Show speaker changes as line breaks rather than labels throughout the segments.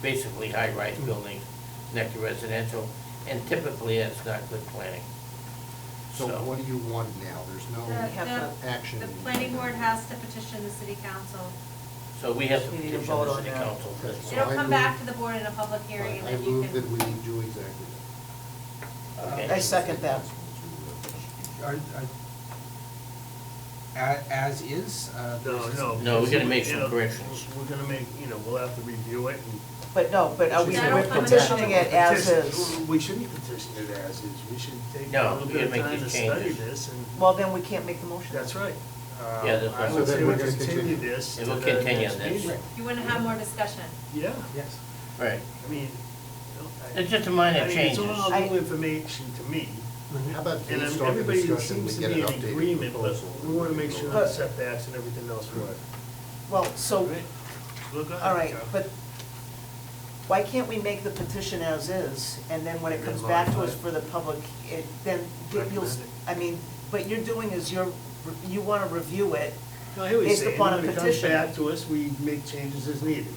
basically high-rise buildings next to residential, and typically that's not good planning.
So
So-
what do you want now? There's no
The-
have
the-
to-
action.
The planning board has to petition the city council.
So we have to
We need to
petition
vote
the
on
city
that.
council for this.
So
It'll
I
come
move-
back to the board in a public hearing and
I
then you
move that
can.
we do exactly
Okay.
that.
I second that.
Are- are- a- As is? uh,
No, no.
No, we're gonna make
because,
some
you know,
corrections.
We're gonna make, you know, we'll have to review it and.
But no, but are we
That'll
we're
come in the
petitioning it as
Petition-
is?
We shouldn't petition it as is, we should take
No,
a little
we
bit of
gotta make
time to
these
study
changes.
this and,
Well, then we can't make the motion.
that's right. Uh,
Yeah, that's right.
I would
So then
say
we're
we
gonna
continue
continue.
this.
And
to
we'll
the
continue
next
this.
meeting.
You wanna have more discussion.
Yeah,
Yes.
Right,
I mean. you know, I-
it's just a minor
I mean,
change.
It's all
I-
new information to me.
How about
And
based
I'm-
on the
everybody
discussion, we
seems to
get
be
an
in
updated
agreement, but
proposal?
we wanna make sure
Uh,
But-
the setbacks and everything else are right.
Well, so,
Right. Look, I-
all right, but why can't we make the petition as is? And then when it comes back to us for the public, it, then you'll,
Recommend it.
I mean, what you're doing is you're, you wanna review it.
No, I hear what you're
based
saying,
upon a
when it comes
petition.
back to us, we make changes as needed.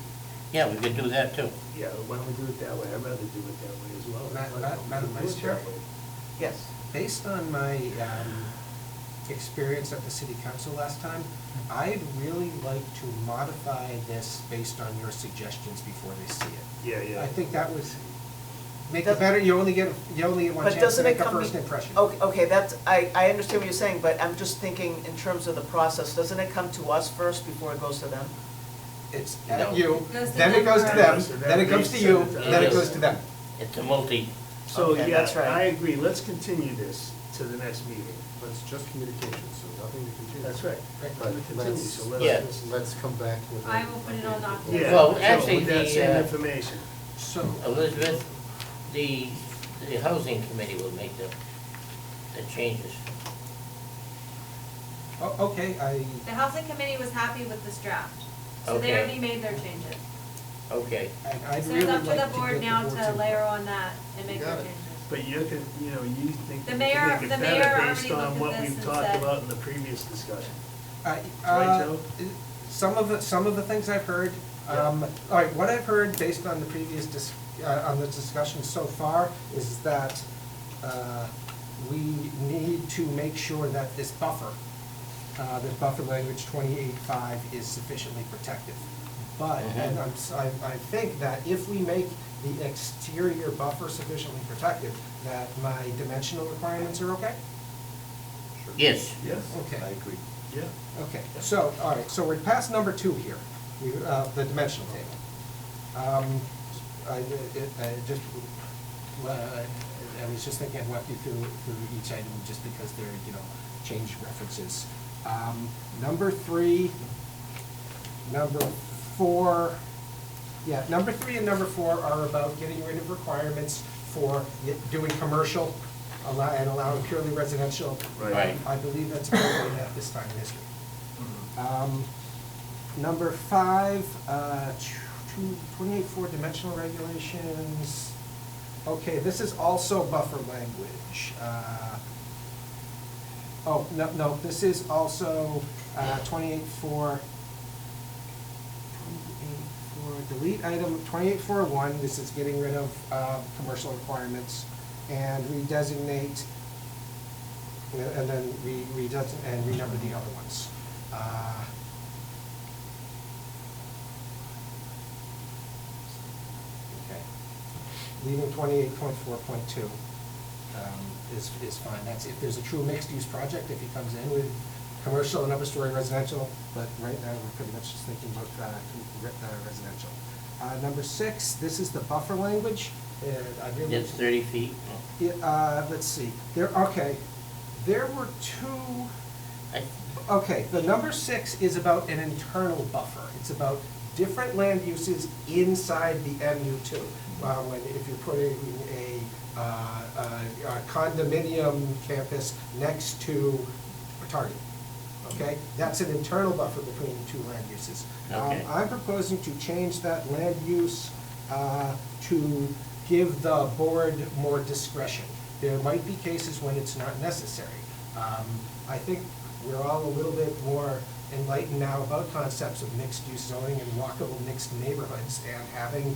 Yeah, we could do that too.
Yeah, why don't we do it that way? I'd rather do it that way as well.
Ma- ma- Madam
Do it
Vice Chair?
that way.
Yes.
Based on my um, experience at the city council last time, I'd really like to modify this based on your suggestions before they see it.
Yeah, yeah.
I think that was, make
Does-
it better, you only get, you only get one
But
chance to
doesn't it
make a
come?
first impression.
Okay, okay, that's, I, I understand what you're saying, but I'm just thinking in terms of the process, doesn't it come to us first before it goes to them?
It's
No.
at you,
It goes to
then it
them
goes to them,
first.
then it comes to you, then it goes to them.
It's a multi,
So,
Okay,
yeah,
that's right.
I agree. Let's continue this to the next meeting.
But it's just communication, so nothing to continue.
That's right.
Right.
Let it continue,
Let's-
so
Yeah.
let's.
Let's, let's come back with.
I will put it on document.
Yeah,
Well,
so
actually,
with that
the,
same
uh,
information.
So,
Elizabeth, the, the housing committee will make the, the changes.
o- oh, okay, I,
The housing committee was happy with this draft, so they
Okay.
already made their changes.
Okay,
I'd I'd
So
really
it's
like
up
to
to
get
the board now to layer
input.
on that and make
You
their
got it.
changes.
But you can, you know, you think
The
you
mayor-
can make
the
it
mayor
better
already
based
looked
on
at
what
this
we've
and
talked
said-
about in the previous discussion.
I-
Right,
uh,
Joe?
Some of, the some of the things I've heard, um, all right, what I've heard based on the previous, dis- uh, on the discussion so far is that uh, we need to make sure that this buffer, uh, this buffer language twenty-eight-five is sufficiently protective. But,
Mm-hmm.
and I'm, s- I, I think that if we make the exterior buffer sufficiently protective, that my dimensional requirements are okay?
Sure.
yes,
Yes.
Okay.
I agree.
Yeah.
Okay, so, all right, so we're past number two here, we, uh, the dimensional table. Um, I, it, I just, uh, I was just thinking I'd walk you through, through each item just because they're, you know, change references. Um, number three, number four, yeah, number three and number four are about getting rid of requirements for doing commercial allow- and allowing purely residential.
Right.
Right.
I believe that's probably at this time in history.
Mm-hmm.
Um, Number five, uh, two- 28.4 dimensional regulations. Okay, this is also buffer language. Uh, Oh, no, no, this is also uh, 28.4 28.4, delete item 28.4.1, this is getting rid of uh, commercial requirements, and redesignate, and then re redes- and renumber the other ones. Uh, Okay. Leaving 28.4.2 um, is is fine, that's if there's a true mixed-use project, if he comes in with commercial and upper-story residential, but right now, we're pretty much just thinking about uh, com- re- uh, residential. Uh, Number six, this is the buffer language, Uh, I really.
it's thirty feet.
Yeah, uh, let's see, there, okay, there were two,
I-
okay, the number six is about an internal buffer. It's about different land uses inside the MU two. Uh, when, if you're putting a, uh, a a condominium campus next to a Target, okay? That's an internal buffer between the two land uses. Um,
Okay.
I'm proposing to change that land use uh, to give the board more discretion. There might be cases when it's not necessary. Um, I think we're all a little bit more enlightened now about concepts of mixed-use zoning and walkable mixed neighborhoods and having